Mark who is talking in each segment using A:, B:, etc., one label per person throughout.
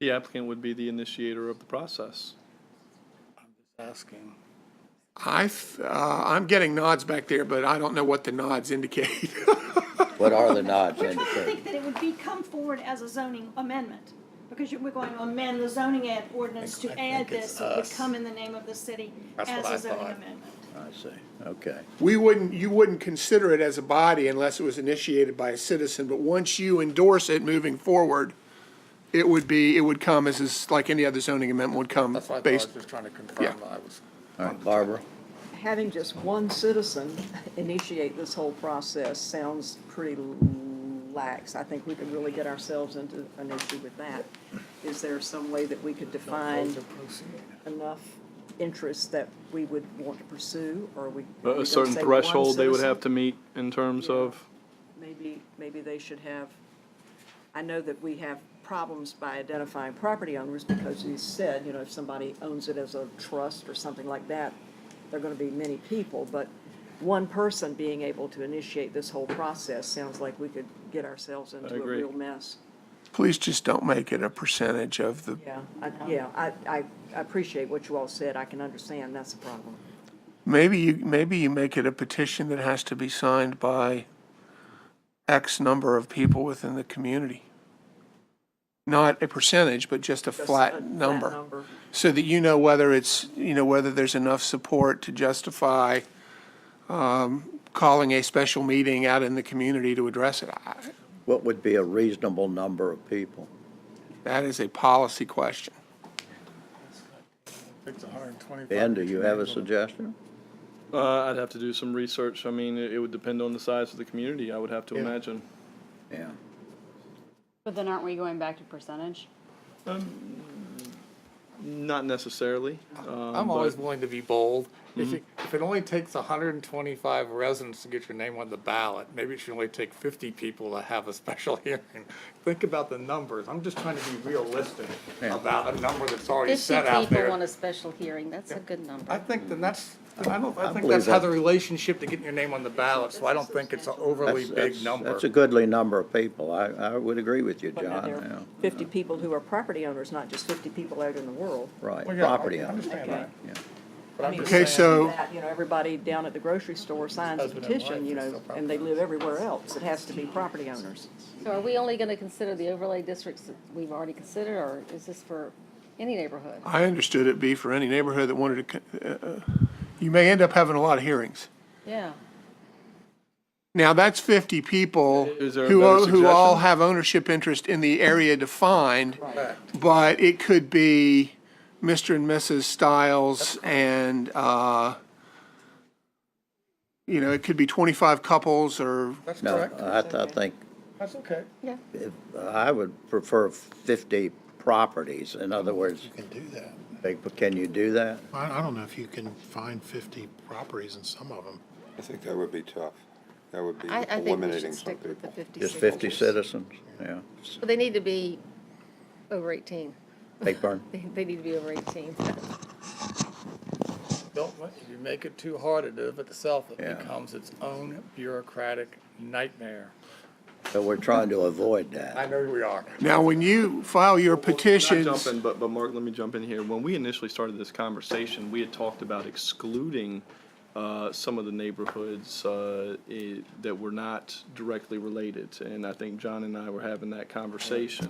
A: The applicant would be the initiator of the process.
B: asking.
C: I, th- uh, I'm getting nods back there, but I don't know what the nods indicate.
D: What are the nods
E: We're trying to think
D: indicating?
E: that it would be come forward as a zoning amendment, because you- we're going to amend the zoning ad ordinance
B: I
E: to
B: think
E: add
B: it's
E: this, it would
B: us.
E: come in the name of the city
B: That's
E: as
B: what I
E: a zoning
B: thought.
E: amendment.
D: I see, okay.
C: We wouldn't, you wouldn't consider it as a body unless it was initiated by a citizen, but once you endorse it moving forward, it would be, it would come as, is like any other zoning amendment would come
B: That's what I thought, I was
C: based.
B: just trying to confirm, I was.
D: All right, Barbara?
F: having just one citizen initiate this whole process sounds pretty lax. I think we could really get ourselves into an issue with that. Is there some way that we could define enough interests that we would want to pursue, or we? we
A: A
F: gonna
A: certain
F: say one
A: threshold they would
F: citizen?
A: have to meet in terms of,
F: Maybe, maybe they should have, I know that we have problems by identifying property owners because you said, you know, if somebody owns it as a trust or something like that, there are gonna be many people, but one person being able to initiate this whole process sounds like we could get ourselves into a
A: agree.
F: real mess.
C: Please just don't make it a percentage of the,
F: Yeah, I, yeah, I, I I appreciate what you all said, I can understand, that's the problem.
C: maybe you, maybe you make it a petition that has to be signed by X number of people within the community. Not a percentage, but just a
F: Just a
C: flat
F: flat
C: number.
F: number.
C: so that you know whether it's, you know, whether there's enough support to justify um, calling a special meeting out in the community to address it. I-
D: What would be a reasonable number of people?
C: That is a policy question.
B: It's a hundred and twenty-five.
D: Ben, do you have a suggestion?
A: uh, I'd have to do some research. I mean, it it would depend on the size of the community, I would have to imagine.
D: Yeah.
G: But then aren't we going back to percentage?
A: Not necessarily.
B: I'm always willing to be bold. If you,
D: Mm-hmm.
B: if it only takes hundred and twenty-five residents to get your name on the ballot, maybe it should only take fifty people to have a special hearing. Think about the numbers. I'm just trying to be realistic about a number that's already
H: Fifty
B: set out
H: people want
B: there.
H: a special hearing, that's a good number.
B: I think then that's, I don't, I think
D: believe
B: that's how
D: that.
B: the relationship to getting your name on the ballot, so I don't think it's an overly
D: That's-
B: big
D: that's-
B: number.
D: That's a goodly number of people. I, I would agree with you,
F: But now
D: John,
F: there are
D: yeah.
F: Fifty people who are property owners, not just fifty people out in the world.
D: Right,
B: Well, yeah, I-
D: property
B: I
D: owners.
B: understand
F: Okay.
B: that. But I'm just
C: Okay,
B: saying-
C: so-
F: that, you know, everybody down at the grocery store signs a
B: Husband and wife
F: petition, you
B: is
F: know,
B: still property
F: and they live everywhere else. It has to be property owners.
H: So are we only gonna consider the overlay districts that we've already considered, or is this for any neighborhood?
C: I understood it be for any neighborhood that wanted to, co- uh, uh, you may end up having a lot of hearings.
H: Yeah.
C: Now, that's 50 people
A: Is there a
C: who,
A: better
C: o- who all
A: suggestion?
C: have ownership interest in the area defined, but it could be Mr. and Mrs. Stiles and, uh, you know, it could be 25 couples or
B: That's
D: No,
B: correct.
D: I, I think,
B: That's okay.
D: I would prefer fifty properties. In other words,
I: You can do that.
D: big- can you do that?
I: I, I don't know if you can find fifty properties in some of them.
J: I think that would be tough. That would be
H: I, I think we
J: eliminating
H: should
J: some
H: stick with the
J: people.
H: fifty.
D: Just fifty citizens, yeah.
H: But they need to be over eighteen.
D: Blakeburn?
H: They, they need to be over eighteen.
B: Don't let, if you make it too hard to do it itself, it
D: Yeah.
B: becomes its own bureaucratic nightmare.
D: So we're trying to avoid that.
B: I know we are.
C: Now, when you file your petitions.
A: Not jumping, but, but Mark, let me jump in here. When we initially started this conversation, we had talked about excluding uh, some of the neighborhoods uh, i- that were not directly related. And I think John and I were having that conversation.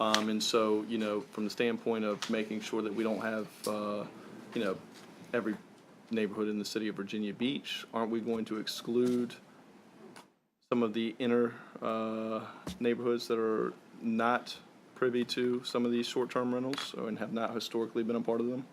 A: Um, And so, you know, from the standpoint of making sure that we don't have, uh, you know, every neighborhood in the city of Virginia Beach, aren't we going to exclude some of the inner uh, neighborhoods that are not privy to some of these short-term rentals or- and have not historically been a part of them?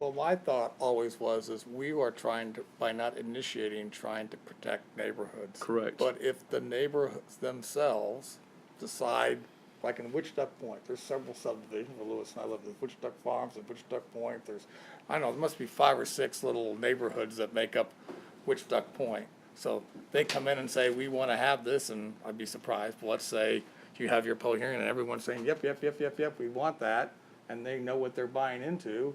B: Well, my thought always was, is we are trying to, by not initiating, trying to protect neighborhoods.
A: Correct.
B: But if the neighborhoods themselves decide, like in Witch Duck Point, there's several subdivisions, where Lewis and I live, there's Witch Duck Farms and Witch Duck Point, there's, I don't know, there must be five or six little neighborhoods that make up Witch Duck Point. So they come in and say, we want to have this, and I'd be surprised, but let's say you have your poll hearing and everyone's saying, yep, yep, yep, yep, yep, we want that, and they know what they're buying into,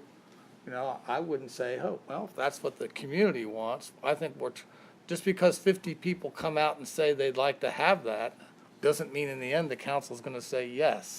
B: you know, I wouldn't say, oh, well, if that's what the community wants, I think we're, tr- just because fifty people come out and say they'd like to have that, doesn't mean in the end the council's gonna say yes.